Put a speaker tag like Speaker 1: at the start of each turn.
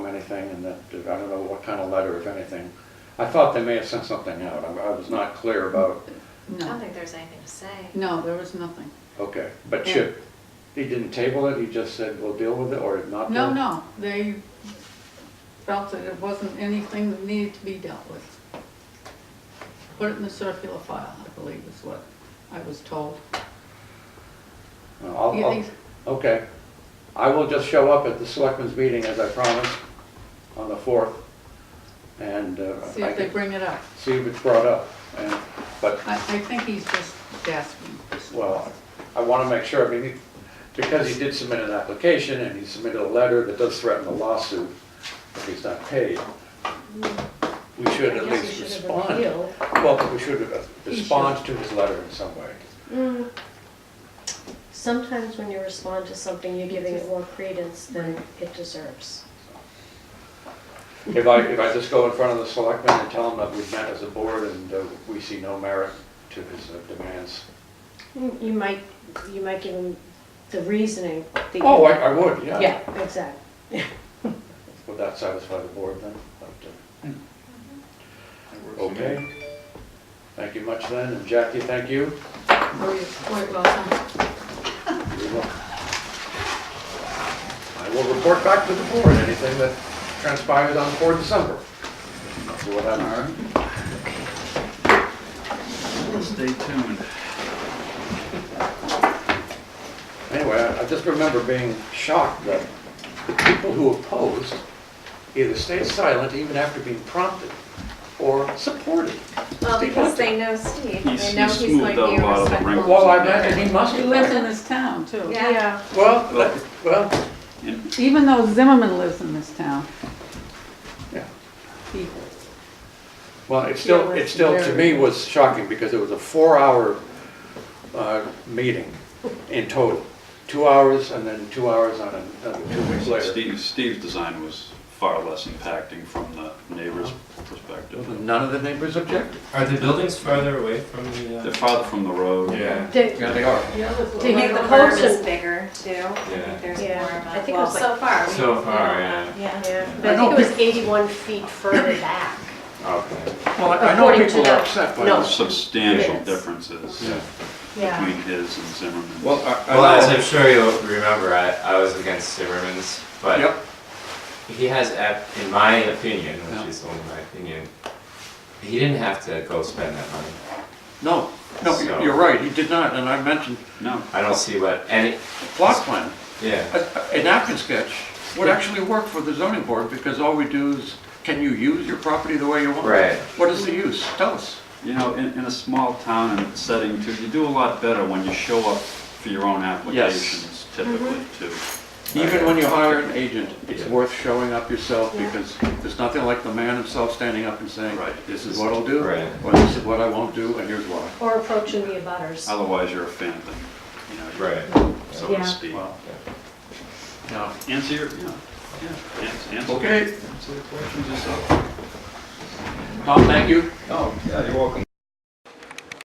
Speaker 1: anything, and that, I don't know what kind of letter, if anything. I thought they may have sent something out, I I was not clear about,
Speaker 2: I don't
Speaker 3: No,
Speaker 2: think there's anything to say.
Speaker 3: no, there was nothing.
Speaker 1: okay, but Chip, he didn't table it, he just said, we'll deal with it, or not?
Speaker 3: No,
Speaker 1: deal-
Speaker 3: no, they felt that it wasn't anything that needed to be dealt with. Put it in the circular file, I believe is what I was told.
Speaker 1: No, I'll-
Speaker 3: You
Speaker 1: I'll-
Speaker 3: think-
Speaker 1: Okay, I will just show up at the selectmen's meeting as I promised on the fourth, and uh,
Speaker 3: See
Speaker 1: I
Speaker 3: if they
Speaker 1: can
Speaker 3: bring it up.
Speaker 1: see if it's brought up, and, but
Speaker 3: I, I think he's just gasping. for some-
Speaker 1: Well, I want to make sure, I mean, because he did submit an application and he submitted a letter that does threaten a lawsuit if he's not paid, we should at
Speaker 4: I guess we
Speaker 1: least
Speaker 4: should have
Speaker 1: respond.
Speaker 4: revealed.
Speaker 1: Well, but we should uh, respond to his letter in some way.
Speaker 4: Mm. Sometimes when you respond to something, you're giving it more credence than it deserves.
Speaker 1: If I, if I just go in front of the selectmen and tell them that we've met as a board and uh, we see no merit to his uh, demands.
Speaker 4: You you might, you might give them the reasoning. that you-
Speaker 1: Oh, I, I would, yeah.
Speaker 4: Yeah, exactly.
Speaker 1: Would that satisfy the board then? But, uh, Okay. Thank you much then, and Jackie, thank you.
Speaker 3: Oh, you're quite welcome.
Speaker 1: I will report back to the board anything that transpires on 4 December. That's what
Speaker 5: All
Speaker 1: I'm-
Speaker 5: right. Stay tuned.
Speaker 1: Anyway, I- I just remember being shocked that the people who opposed either stayed silent even after being prompted or supported.
Speaker 2: Well,
Speaker 1: Steve
Speaker 2: because
Speaker 1: Hunter.
Speaker 2: they know Steve,
Speaker 5: He's-
Speaker 2: they know
Speaker 5: he's
Speaker 2: he's going
Speaker 5: smoothed
Speaker 2: to
Speaker 5: out
Speaker 2: be
Speaker 5: a lot of the wrinkles.
Speaker 2: respectful.
Speaker 1: Well, I imagine he must
Speaker 3: He
Speaker 1: have
Speaker 3: lives in
Speaker 1: been.
Speaker 3: this town too.
Speaker 2: Yeah,
Speaker 1: Well, that- well,
Speaker 5: And
Speaker 3: Even though Zimmerman lives in this town,
Speaker 1: yeah.
Speaker 3: he,
Speaker 1: Well, it still, it still, to me, was shocking because it was a four-hour uh, meeting in total. Two hours and then two hours on another, two weeks later.
Speaker 5: Steve, Steve's design was far less impacting from the neighbor's perspective.
Speaker 1: None of the neighbors objected.
Speaker 6: Are the buildings farther away from the?
Speaker 5: They're
Speaker 6: Uh,
Speaker 5: farther from the road.
Speaker 6: yeah.
Speaker 4: The-
Speaker 1: Yeah, they are.
Speaker 3: the other's
Speaker 2: I
Speaker 4: To
Speaker 2: think
Speaker 4: hit
Speaker 2: the
Speaker 4: the
Speaker 2: curve
Speaker 4: post
Speaker 2: is
Speaker 4: and-
Speaker 2: bigger too. I
Speaker 6: Yeah.
Speaker 2: think there's more
Speaker 4: Yeah.
Speaker 2: of
Speaker 4: I
Speaker 2: a,
Speaker 4: think it
Speaker 2: well,
Speaker 4: was
Speaker 2: so far. we-
Speaker 6: So
Speaker 2: we
Speaker 6: far,
Speaker 2: don't
Speaker 6: yeah.
Speaker 2: know.
Speaker 4: Yeah,
Speaker 1: I
Speaker 4: but I
Speaker 1: know
Speaker 4: think it was 81 feet further back.
Speaker 6: Okay.
Speaker 1: Well, I I know
Speaker 4: According to
Speaker 1: people are
Speaker 4: the-
Speaker 1: upset by
Speaker 4: no.
Speaker 1: this.
Speaker 5: Substantial
Speaker 4: Yes.
Speaker 5: differences
Speaker 1: Yeah.
Speaker 4: Yeah.
Speaker 5: between his and Zimmerman's.
Speaker 6: Well,
Speaker 1: uh,
Speaker 6: well, as I'm sure you'll remember, I, I was against Zimmerman's, but
Speaker 1: Yep.
Speaker 6: he has, ap- in my opinion, which
Speaker 1: Yeah.
Speaker 6: is only my opinion, he didn't have to go spend that money.
Speaker 1: No, no,
Speaker 6: So-
Speaker 1: you're right, he did not, and I mentioned
Speaker 5: No,
Speaker 6: I don't see what any.
Speaker 1: plot plan.
Speaker 6: Yeah.
Speaker 1: A a napkin sketch would actually work for the zoning board because all we do is, can you use your property the way you want?
Speaker 6: Right.
Speaker 1: What is the use? Tell us.
Speaker 5: you know, in, in a small town and setting too, you do a lot better when you show up for your own applications typically
Speaker 4: Mm-hmm.
Speaker 5: too.
Speaker 1: Even when you hire an agent, it's
Speaker 6: Yeah.
Speaker 1: worth showing up yourself because there's nothing like the man himself standing up and saying,
Speaker 5: Right.
Speaker 1: this is what I'll do,
Speaker 6: Right.
Speaker 1: or this is what I won't do, and here's why.
Speaker 4: Or approaching the abutters.
Speaker 5: Otherwise, you're a phantom, you know, you're-
Speaker 6: Right.
Speaker 5: so to
Speaker 4: Yeah.
Speaker 5: speak.
Speaker 1: Wow.
Speaker 6: Yeah.
Speaker 1: Now,
Speaker 5: Answer your, yeah, yeah, ans- answer.
Speaker 1: Okay.
Speaker 5: Answer the questions yourself.
Speaker 1: Tom, thank you.
Speaker 5: Oh, yeah, you're welcome.